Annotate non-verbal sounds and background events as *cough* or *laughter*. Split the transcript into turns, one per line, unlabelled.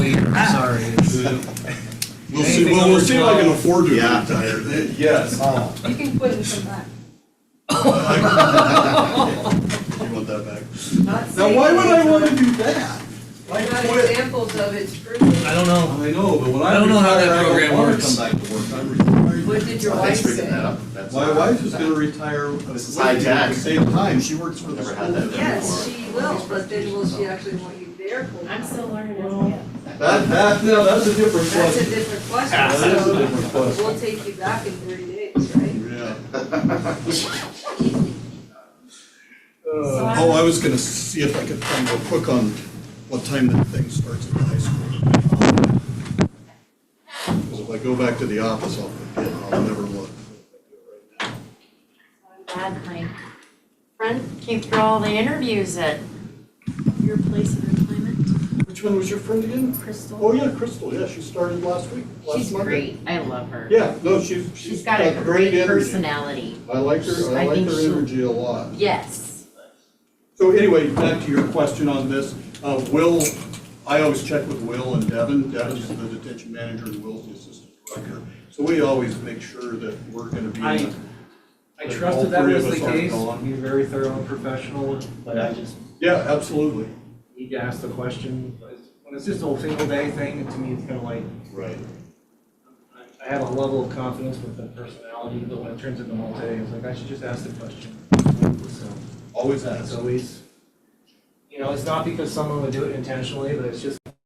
We'll see, well, we'll see if I can afford to
Yeah.
retire then.
*laughs* Yes.
Oh,
You can quit and come back.
you want that back?
Not
Now,
saying-
why would I wanna do that? Why
Not
quit?
examples of it's proven.
I don't know.
I know, but when I.
I don't know how that
retire, I don't
program
wanna
works.
Come back to work, I'm retired.
What did your wife
Thanks for getting that
say?
up. That's-
My wife is gonna retire. This
is high tech.
At the same time, she works for the
Never
school.
had that.
Yes, she will, but then will she actually want you there for?
I'm still learning as
Well, That, that, no, that's a different
That's a
question.
different
That is a
question,
different
so
question.
we'll take you back in thirty days, right?
*laughs*
Yeah.
So I-
Oh, I was gonna see if I could find real quick on what time that thing starts at the high school. Because if I go back to the office, I'll forget, and I'll never look.
I'm glad my friend came through all the interviews at your place of employment,
Which one was your friend again? Oh,
Crystal.
yeah, Crystal, yeah, she started last week, last
She's
Monday.
great. I love her.
Yeah, no, she's,
She's got a great
energy.
personality.
I like her, I
I
like
think
her
she'll-
energy a lot.
Yes.
So anyway, back to your question on this, uh, Will, I always check with Will and Devin, Devin's the detention manager and Will's the assistant director. So we always make sure that we're gonna be.
I-
in-
I
Like, all
trusted that
three
was
of
the
us aren't
case,
gone.
he's very thorough and professional, but I just
Yeah, absolutely.
need to ask the question. When it's just a single day thing, to me, it's kind of like,
Right.
I- I have a level of confidence with the personality, but when it turns into multi, it's like, I should just ask the question. So,
Always
that's
ask.
always, you know, it's not because someone would do it intentionally, but it's just